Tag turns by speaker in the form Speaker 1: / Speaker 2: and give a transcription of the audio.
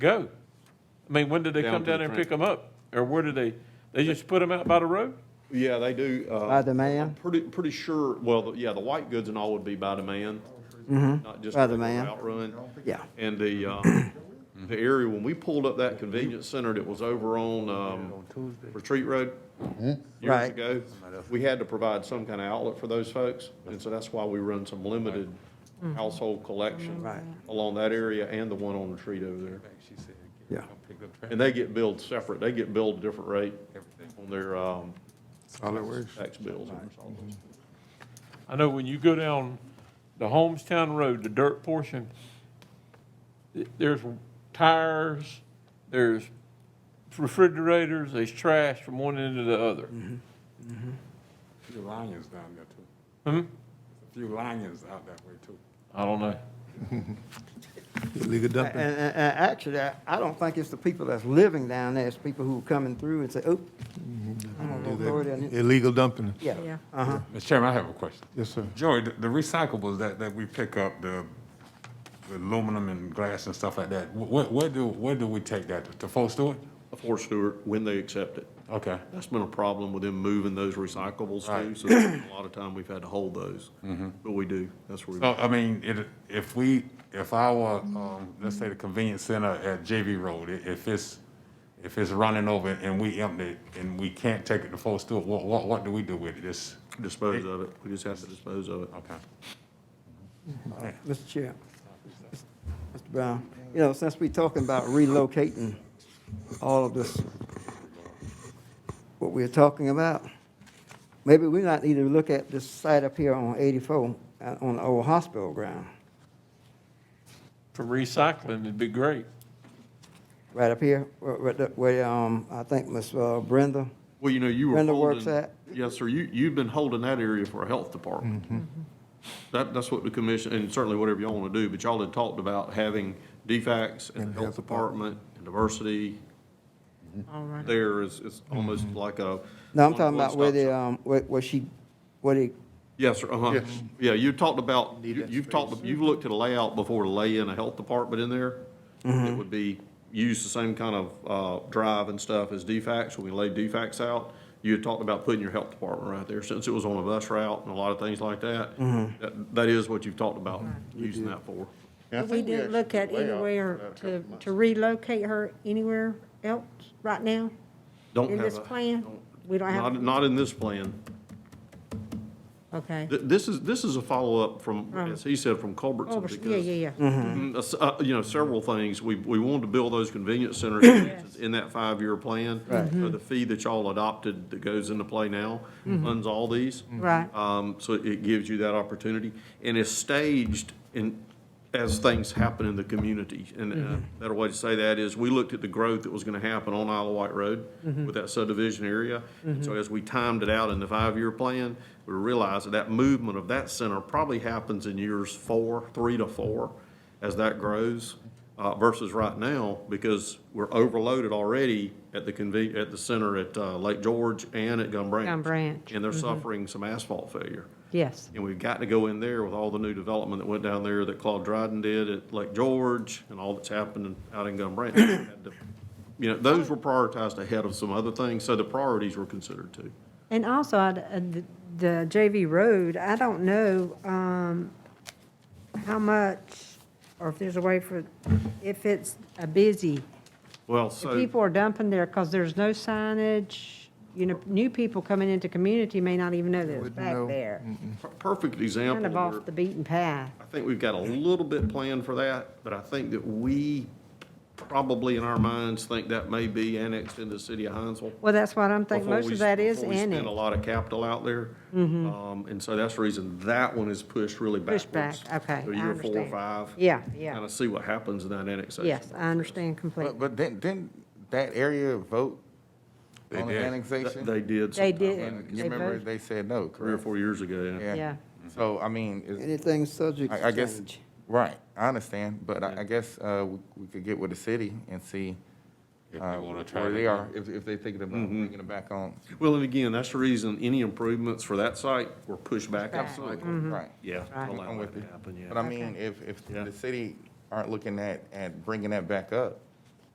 Speaker 1: go? I mean, when did they
Speaker 2: Down
Speaker 1: come
Speaker 2: to the
Speaker 1: down there and
Speaker 2: train.
Speaker 1: pick them up? Or where did they, they just put them out by the road?
Speaker 2: Yeah, they do. uh,
Speaker 3: By demand?
Speaker 2: Pretty, pretty sure, well, the- yeah, the white goods and all would be by demand. Not just
Speaker 3: Mm-hmm. By
Speaker 2: regular
Speaker 3: demand.
Speaker 2: outrun.
Speaker 3: Yeah.
Speaker 2: And the, um, the area, when we pulled up that convenience center that was over on, um, Retreat Road years
Speaker 3: Right.
Speaker 2: ago, we had to provide some kind of outlet for those folks. And so that's why we run some limited household collection
Speaker 3: Right.
Speaker 2: along that area and the one on Retreat over there.
Speaker 3: Yeah.
Speaker 2: And they get billed separate. They get billed a different rate on their, um,
Speaker 4: Solid waste.
Speaker 2: tax bills.
Speaker 1: I know when you go down the Homestown Road, the dirt portion, th- there's tires, there's refrigerators, there's trash from one end to the other.
Speaker 2: Mm-hmm.
Speaker 4: Few lions down there too.
Speaker 1: Hmm?
Speaker 4: Few lions out that way too.
Speaker 1: I don't know.
Speaker 5: Illegal
Speaker 3: And,
Speaker 5: dumping.
Speaker 3: and, and actually, I, I don't think it's the people that's living down there, it's people who are coming through and say, oh, I'm gonna go over there and-"
Speaker 5: Illegal dumping.
Speaker 3: Yeah, uh-huh,
Speaker 4: Mr. Chairman, I have a question.
Speaker 5: Yes, sir.
Speaker 4: Joey, the the recyclables that, that we pick up, the the aluminum and glass and stuff like that, wh- wh- where do, where do we take that? To Fort Stewart?
Speaker 2: For Stewart, when they accept it.
Speaker 4: Okay,
Speaker 2: That's been a problem with them moving those recyclables too,
Speaker 4: Right.
Speaker 2: so a lot of time we've had to hold those. But we do, that's where,
Speaker 4: so,
Speaker 2: we-
Speaker 4: I mean, it, if we, if our, um, let's say the convenience center at JV Road, i- if it's, if it's running over and we empty it and we can't take it to Fort Stewart, what, what, what do we do with it? It's,
Speaker 2: dispose of it, we just have to dispose of it.
Speaker 4: okay.
Speaker 3: Mr. Chair. Mr. Brown, you know, since we are talking about relocating all of this, what we're talking about, maybe we might need to look at this site up here on eighty-four, uh, on the old hospital ground,
Speaker 1: For recycling, it'd be great.
Speaker 3: right up here, where, where the- where, um, I think Ms. uh, Brenda,
Speaker 2: Well, you know, you were
Speaker 3: Brenda
Speaker 2: holding.
Speaker 3: works at-
Speaker 2: Yes, sir, you, you've been holding that area for a health department. That, that's what the commission, and certainly whatever y'all want to do, but y'all had talked about having DFACs and the health department and diversity. There is, is almost like a.
Speaker 3: no, I'm talking about where
Speaker 2: one-stop
Speaker 3: the,
Speaker 2: shop.
Speaker 3: um, where, where she, where they
Speaker 2: Yes, sir, uh-huh.
Speaker 5: Yes.
Speaker 2: Yeah, you talked about, you-
Speaker 5: that
Speaker 2: you've talked, you've looked at a layout before to lay in a health department in there. It would be, use the same kind of, uh, drive and stuff as DFAX, when we lay DFAX out. You had talked about putting your health department right there, since it was on a bus route and a lot of things like that. That, that is what you've talked about using that for.
Speaker 6: But We didn't look at anywhere to, to relocate her anywhere else right now
Speaker 2: Don't
Speaker 6: in
Speaker 2: have
Speaker 6: this
Speaker 2: a.
Speaker 6: plan? We don't
Speaker 2: Not,
Speaker 6: have,
Speaker 2: not in this plan.
Speaker 6: okay.
Speaker 2: Th- this is, this is a follow-up from,
Speaker 6: Right.
Speaker 2: as he said, from
Speaker 6: Oh,
Speaker 2: Culbertson,
Speaker 6: Yeah,
Speaker 2: because
Speaker 6: yeah, yeah.
Speaker 2: Mm, s- uh, You know, several things. We, we wanted to build those convenience center expansions in that five-year plan. So the fee that y'all adopted that goes into play now funds all these.
Speaker 6: Mm-hmm. Right.
Speaker 2: Um, So it gives you that opportunity. And it's staged in, as things happen in the community. And uh, a better way to say that is, we looked at the growth that was going to happen on Isle of Wight Road with that subdivision area. And So as we timed it out in the five-year plan, we realized that that movement of that center probably happens in years four, three to four, as that grows uh, versus right now, because we're overloaded already at the conven, at the center at uh, Lake George and at Gum Branch.
Speaker 6: Gum Branch,
Speaker 2: And they're suffering some asphalt failure.
Speaker 6: Yes.
Speaker 2: And we've got to go in there with all the new development that went down there that Claude Dryden did at Lake George and all that's happened out in Gum Branch. You know, those were prioritized ahead of some other things, so the priorities were considered too.
Speaker 6: And also, I'd- uh, the the JV Road, I don't know um, how much, or if there's a way for, if it's a busy,
Speaker 2: Well,
Speaker 6: if
Speaker 2: so.
Speaker 6: people are dumping there because there's no signage, you know, new people coming into community may not even know that it's
Speaker 5: Wouldn't
Speaker 6: back
Speaker 5: know.
Speaker 6: there.
Speaker 2: Per- Perfect example.
Speaker 6: Kind of
Speaker 2: where-
Speaker 6: off the beaten path.
Speaker 2: I think we've got a little bit planned for that, but I think that we probably in our minds think that may be annexed into the city of Hinesville.
Speaker 6: Well, that's what I'm thinking,
Speaker 2: before
Speaker 6: most
Speaker 2: we-
Speaker 6: of that is
Speaker 2: before we
Speaker 6: in
Speaker 2: Spend a
Speaker 6: it. Mm-hmm.
Speaker 2: lot of capital out there. Um, and so that's the reason that one is pushed really backwards.
Speaker 6: Pushed back, okay,
Speaker 2: So
Speaker 6: I
Speaker 2: year four or
Speaker 6: understand.
Speaker 2: five.
Speaker 6: Yeah,
Speaker 2: Kind
Speaker 6: yeah,
Speaker 2: of see what happens in that annexation.
Speaker 6: yes, I understand completely.
Speaker 7: But, but didn't, didn't that area vote
Speaker 4: They
Speaker 7: on the
Speaker 4: did.
Speaker 7: annexation?
Speaker 2: They did.
Speaker 6: They
Speaker 2: sometime
Speaker 6: did,
Speaker 2: back,
Speaker 7: You
Speaker 6: They
Speaker 7: remember
Speaker 6: voted.
Speaker 7: they said
Speaker 2: Three
Speaker 7: no,
Speaker 2: or
Speaker 7: correct?
Speaker 2: four years ago, yeah.
Speaker 6: yeah.
Speaker 7: So, I mean, it's,
Speaker 3: Anything subject
Speaker 7: I, I
Speaker 3: to
Speaker 7: guess,
Speaker 3: change.
Speaker 7: right, I understand, but I, I guess, uh, we, we could get with the city and see,
Speaker 4: If
Speaker 7: uh,
Speaker 4: they wanna try
Speaker 7: where
Speaker 4: it
Speaker 7: they
Speaker 4: again.
Speaker 7: are, if, if they thinking about
Speaker 2: Mm-hmm.
Speaker 7: bringing it back on.
Speaker 2: Well, and again, that's the reason any improvements for that site were pushed back.
Speaker 6: Back. Mm-hmm.
Speaker 2: Absolutely.
Speaker 7: Right.
Speaker 2: Yeah.
Speaker 6: Right.
Speaker 2: allow
Speaker 7: I'm
Speaker 2: that
Speaker 7: with
Speaker 2: to
Speaker 7: you.
Speaker 2: happen, yeah.
Speaker 7: But I mean, if, if
Speaker 2: Yeah.
Speaker 7: the city aren't looking at, at bringing that back up,